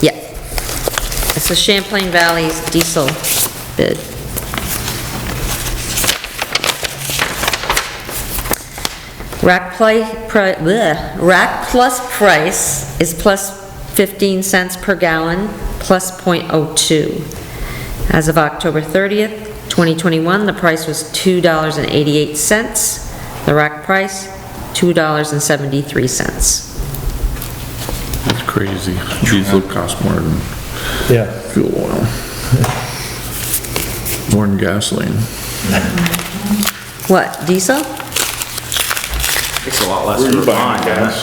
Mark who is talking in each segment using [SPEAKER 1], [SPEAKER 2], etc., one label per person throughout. [SPEAKER 1] Yeah. It's the Champlain Valley's diesel bid. Rack play, pri- bleh, rack plus price is plus 15 cents per gallon, plus .02. As of October 30th, 2021, the price was $2.88. The rack price, $2.73.
[SPEAKER 2] That's crazy. Diesel costs more than
[SPEAKER 3] Yeah,
[SPEAKER 2] fuel oil. More than gasoline.
[SPEAKER 1] What, diesel?
[SPEAKER 4] Takes a lot less to refine, guys.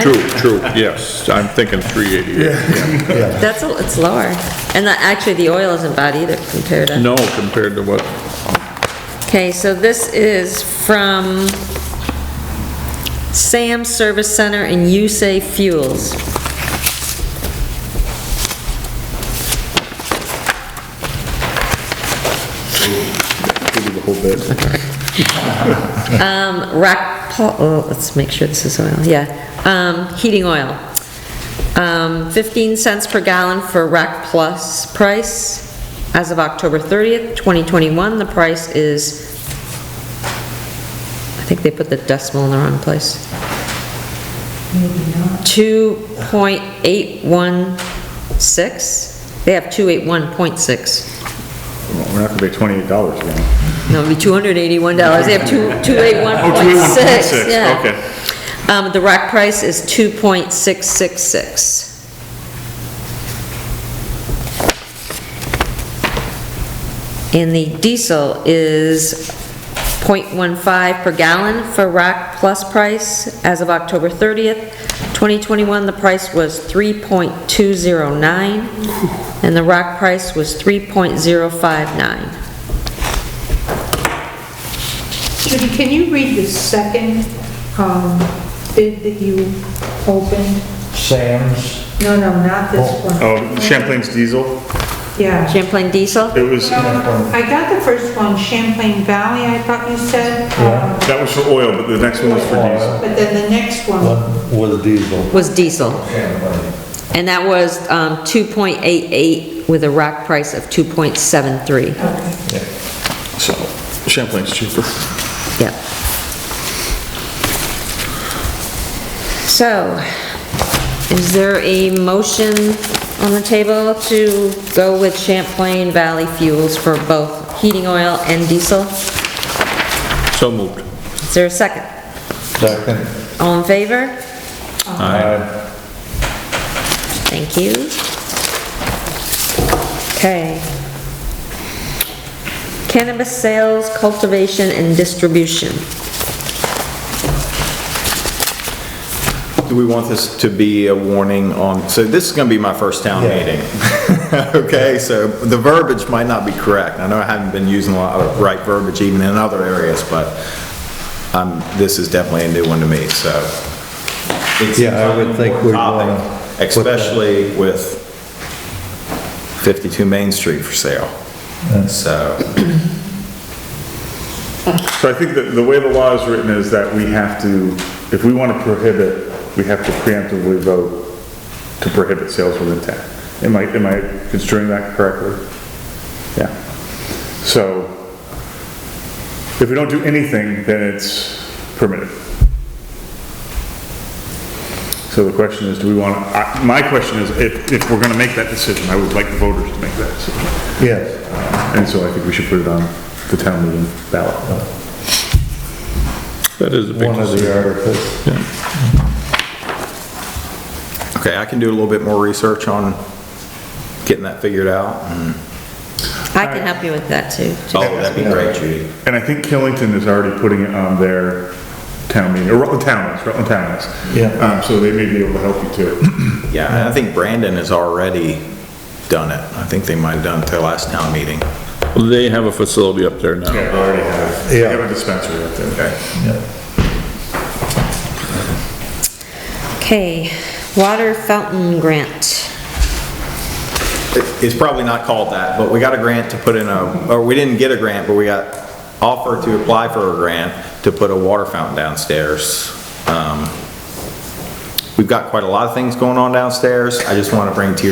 [SPEAKER 2] True, true, yes, I'm thinking 388.
[SPEAKER 1] That's, a- it's lower. And the- actually, the oil isn't bad either compared to...
[SPEAKER 2] No, compared to what,
[SPEAKER 1] Okay, so this is from Sam Service Center and USA Fuels. Um, rack, pl- oh, let's make sure this is oil, yeah. Um, heating oil. Um, 15 cents per gallon for rack plus price. As of October 30th, 2021, the price is, I think they put the decimal in the wrong place. 2.816? They have 281.6.
[SPEAKER 5] We're not gonna pay twenty-eight dollars again.
[SPEAKER 1] No, it'd be $281. They have 281.6.
[SPEAKER 5] Oh, 281.6,
[SPEAKER 1] yeah.
[SPEAKER 5] okay.
[SPEAKER 1] Um, the rack price is 2.666. And the diesel is .15 per gallon for rack plus price. As of October 30th, 2021, the price was 3.209, and the rack price was 3.059.
[SPEAKER 6] Judy, can you read the second um, bid that you opened?
[SPEAKER 3] Sam's,
[SPEAKER 6] No, no, not this one.
[SPEAKER 5] Oh, Champlain's diesel,
[SPEAKER 6] Yeah.
[SPEAKER 1] Champlain diesel?
[SPEAKER 5] it was,
[SPEAKER 6] I got the first one, Champlain Valley, I thought you said. um,
[SPEAKER 5] that was for oil, but the next one was for diesel.
[SPEAKER 6] But then the next one,
[SPEAKER 3] one with diesel.
[SPEAKER 1] was diesel. And that was um, 2.88 with a rack price of 2.73.
[SPEAKER 2] so, Champlain's cheaper.
[SPEAKER 1] Yep. So, is there a motion on the table to go with Champlain Valley Fuels for both heating oil and diesel?
[SPEAKER 2] So moved.
[SPEAKER 1] Is there a second?
[SPEAKER 3] Second.
[SPEAKER 1] All in favor?
[SPEAKER 3] Aye.
[SPEAKER 1] Thank you. Okay. Cannabis sales, cultivation, and distribution.
[SPEAKER 4] Do we want this to be a warning on, so this is gonna be my first town
[SPEAKER 3] Yeah.
[SPEAKER 4] meeting. Okay, so the verbiage might not be correct. I know I haven't been using a lot of right verbiage even in other areas, but um, this is definitely a new one to me, so. it's
[SPEAKER 3] Yeah, I would think we'd wanna put that-
[SPEAKER 4] Especially with 52 Main Street for sale, so.
[SPEAKER 5] So I think that the way the law is written is that we have to, if we wanna prohibit, we have to preemptively vote to prohibit sales with intent. Am I, am I construing that correctly? Yeah. So, if we don't do anything, then it's permitted. So the question is, do we wanna, I- my question is, if, if we're gonna make that decision, I would like the voters to make that decision.
[SPEAKER 3] Yes,
[SPEAKER 5] And so I think we should put it on the town meeting ballot.
[SPEAKER 2] That is a big
[SPEAKER 3] one of the
[SPEAKER 2] decision.
[SPEAKER 3] articles.
[SPEAKER 4] Okay, I can do a little bit more research on getting that figured out. and-
[SPEAKER 1] I can help you with that, too.
[SPEAKER 4] Oh, that'd be great, Judy.
[SPEAKER 5] And I think Killington is already putting it on their town meeting, or Rutland Town is, Rutland Town is.
[SPEAKER 3] Yeah.
[SPEAKER 5] Um, so they may be able to help you too.
[SPEAKER 4] Yeah, and I think Brandon has already done it. I think they might have done it at their last town meeting.
[SPEAKER 2] They have a facility up there now.
[SPEAKER 5] They already have. They have a dispensary up there.
[SPEAKER 4] Okay.
[SPEAKER 1] Okay, water fountain grant.
[SPEAKER 4] It- It's probably not called that, but we got a grant to put in a, or we didn't get a grant, but we got offered to apply for a grant to put a water fountain downstairs. Um, We've got quite a lot of things going on downstairs. I just want to bring to your